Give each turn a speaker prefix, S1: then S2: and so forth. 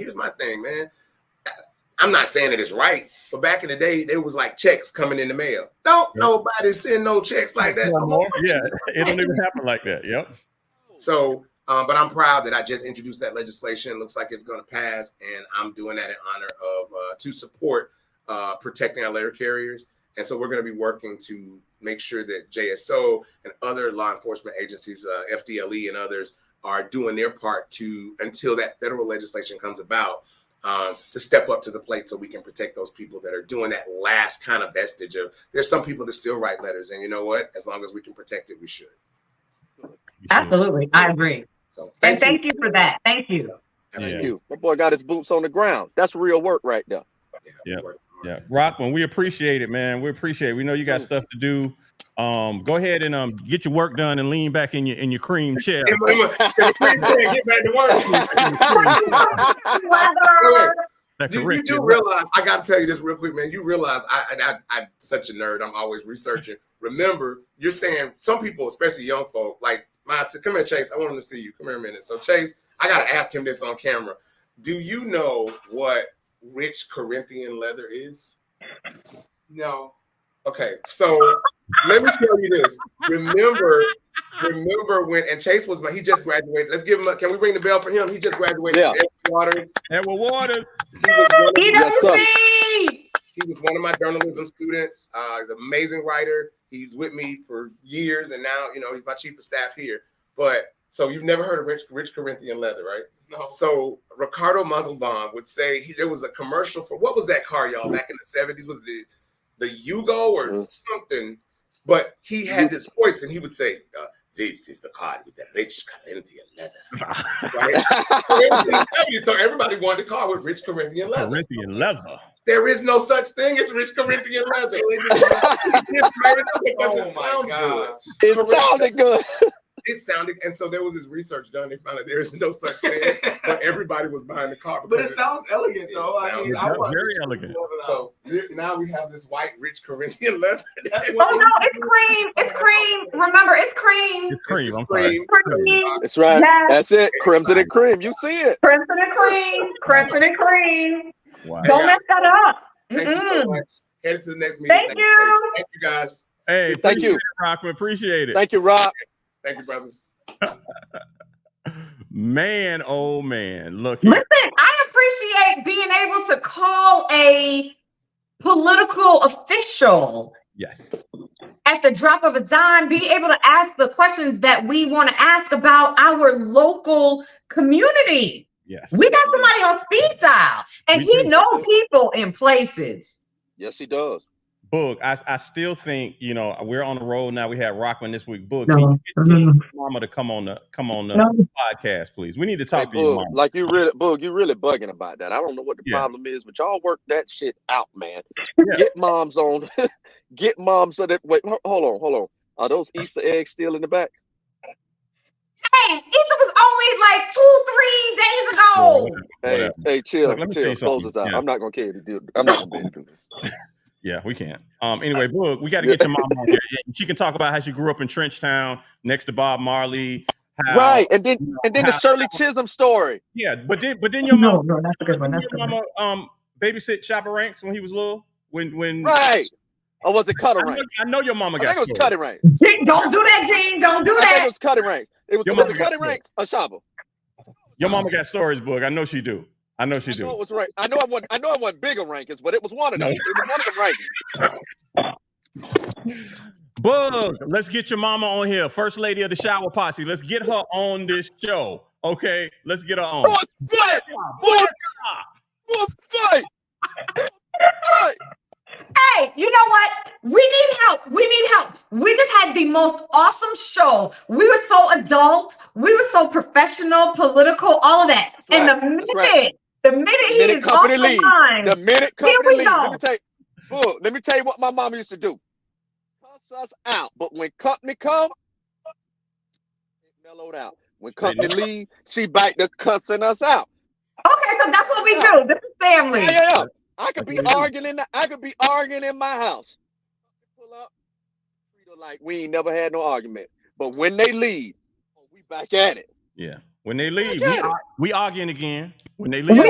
S1: here's my thing, man. I'm not saying that it's right, but back in the day, there was like checks coming in the mail. Don't
S2: Yeah.
S1: nobody send no checks like that. no more.
S2: Oh, Yeah, it don't even happen like that. Yep.
S1: So, um, but I'm proud that I just introduced that legislation. It looks like it's going to pass, and I'm doing that in honor of uh, to support uh, protecting our letter carriers. And so we're going to be working to make sure that JSO and other law enforcement agencies, uh, FDLE and others, are doing their part to until that federal legislation comes about um, to step up to the plate so we can protect those people that are doing that last kind of vestige of there's some people that still write letters and you know what as long as we can protect it we should
S3: Absolutely. I agree.
S1: so
S3: And thank you for that. Thank you.
S1: Absolutely.
S2: Yeah.
S4: Thank you. That boy got his boots on the ground. That's real work right there.
S2: Yeah. Yeah, Rockman, we appreciate it, man. We appreciate. It. We know you got stuff to do. Um, go ahead and um get your work done and lean back in your in your cream chair.
S1: Emma, Emma, can we please get back to work.
S3: Weather.
S2: That
S1: You, you
S2: correct
S1: do
S2: your-
S1: realize I got to tell you this real quick, man. You realize I, and I I'm such a nerd. I'm always researching. Remember, you're saying some people, especially young folk, like my said, come here, Chase. I want him to see you. Come here a minute. So Chase, I gotta ask him this on camera. Do you know what rich Corinthian leather is?
S5: No.
S1: Okay, so let me tell you this. Remember, remember when and Chase was my he just graduated. Let's give him a can we ring the bell for him? He just graduated.
S4: Yeah.
S1: Ed Waters.
S2: Edward Waters.
S1: He was one of,
S3: He
S4: Yes,
S3: doesn't
S4: sir.
S3: see.
S1: he was one of my journalism students. Uh, he's an amazing writer. He's with me for years, and now you know he's my chief of staff here. But so you've never heard of Rich, Rich Corinthian Leather, right?
S5: No.
S1: So Ricardo Montalban would say he, there was a commercial for what was that car, y'all? Back in the seventies, was the the Yugo or
S4: Mhm.
S1: something? But he had this voice, and he would say, uh, "This is the car with the rich Corinthian leather." Right? It was in the 70s, so everybody wanted a car with rich Corinthian leather.
S2: Corinthian leather.
S1: There is no such thing as rich Corinthian leather. It just- it
S5: Oh
S1: doesn't
S5: my
S1: sound good.
S5: god.
S4: it sounded good.
S1: It sounded, and so there was this research done. They found out there is no such thing, but everybody was buying the car.
S5: But it
S1: because
S5: sounds elegant
S1: It
S5: though. I
S1: sounds-
S5: mean,
S1: It
S5: I
S2: does
S5: want-
S2: very elegant.
S1: So th- now we have this white, rich Corinthian leather.
S5: That's
S3: Oh
S5: what
S3: no, it's cream. It's cream. Remember, it's cream.
S2: It's cream.
S1: This is
S2: I'm sorry.
S1: cream.
S3: Cream.
S4: That's right.
S3: Yes.
S4: That's it. Crimson and cream. You see it.
S3: Crimson and cream. Crimson and cream.
S2: Wow.
S3: Don't mess that up.
S1: Thank you so
S3: Mm-mm.
S1: much. Headed to the next meeting.
S3: Thank you.
S1: Thank you guys.
S2: Hey,
S4: Thank
S2: appreciate
S4: you.
S2: it, Rockman. Appreciate it.
S4: Thank you, Rob.
S1: Thank you, brothers.
S2: man, oh man. Look here.
S3: Listen, I appreciate being able to call a political official
S2: Yes.
S3: at the drop of a dime, be able to ask the questions that we want to ask about our local community.
S2: Yes.
S3: We got somebody on speed dial, and
S2: We
S3: he
S2: do.
S3: know people in places.
S4: Yes, he does.
S2: Boog, I, I still think, you know, we're on the road now. We had Rockman this week. Boog, can
S3: No,
S2: you
S3: no,
S2: get your
S3: no,
S2: mama to come on the come on the
S3: no.
S2: podcast, please? We need to
S4: Hey,
S2: talk to your
S4: Boog,
S2: mama.
S4: like you really, Boog, you really bugging about that. I don't know what the
S2: Yeah.
S4: problem is, but y'all work that shit out, man.
S2: Yeah.
S4: Get moms on. Get moms so that. Wait, ho- hold on, hold on. Are those Easter eggs still in the back?
S3: Hey, Issa was only like two, three days ago.
S4: Hey,
S2: Whatever.
S4: hey, chill,
S2: Look, let me tell
S4: chill.
S2: you
S4: Close
S2: something.
S4: this out.
S2: Yeah.
S4: I'm not gonna care to do. I'm not gonna be.
S2: Yeah, we can't. Um, anyway, Boog, we got to get your mom on here. And she can talk about how she grew up in Trenchtown next to Bob Marley. How,
S4: Right, and then
S2: you know,
S4: and then the
S2: how-
S4: Shirley Chisholm story.
S2: Yeah, but then but then your mom
S3: no, that's a good
S2: your mama um babysit Chopper Ranks when he was little. When when
S4: Right. Or was it
S2: I
S4: Cutter
S2: know,
S4: Rank?
S2: I know your mama
S4: I
S2: got
S4: think it was
S2: stories.
S4: Cutter Rank.
S3: Gene, don't do that, Gene. Don't do
S4: I think it
S3: that.
S4: was Cutter Rank. It was,
S2: Your
S4: was
S2: mama
S4: it
S2: got
S4: Cutter
S2: stories.
S4: Ranks or Shaba?
S2: Your mama got stories, Boog. I know she do. I know she
S4: I know it
S2: do.
S4: was right. I know I wasn't. I know I wasn't bigger rankings, but it was one of
S2: No.
S4: them. It was one of them rankings.
S2: Boog, let's get your mama on here. First lady of the shower posse. Let's get her on this show. Okay, let's get her on.
S4: Boy, fight! Boy, boy, fight! Fight!
S3: Hey, you know what? We need help. We need help. We just had the most awesome show. We were so adult. We were so professional, political, all of that. and the minute,
S4: That's right.
S3: the minute he
S4: Minute
S3: is off
S4: company
S3: the
S4: leaves.
S3: line,
S4: The minute
S3: Here
S4: company
S3: we
S4: leaves,
S3: go.
S4: let me tell you. Look, let me tell you what my mama used to do. Cuss us out, but when company come, it mellowed out. When company
S2: know.
S4: leave, she back to cussing us out.
S3: okay, so that's what we do. This is family.
S4: Yeah, yeah, yeah. I could be
S2: Agreed.
S4: arguing in the, I could be arguing in my house. Pull up, treat her like we ain't never had no argument. But when they leave, oh, we back at it.
S2: Yeah. When they leave,
S4: Back
S2: we,
S4: at it.
S2: we arguing again. When they leave,
S3: We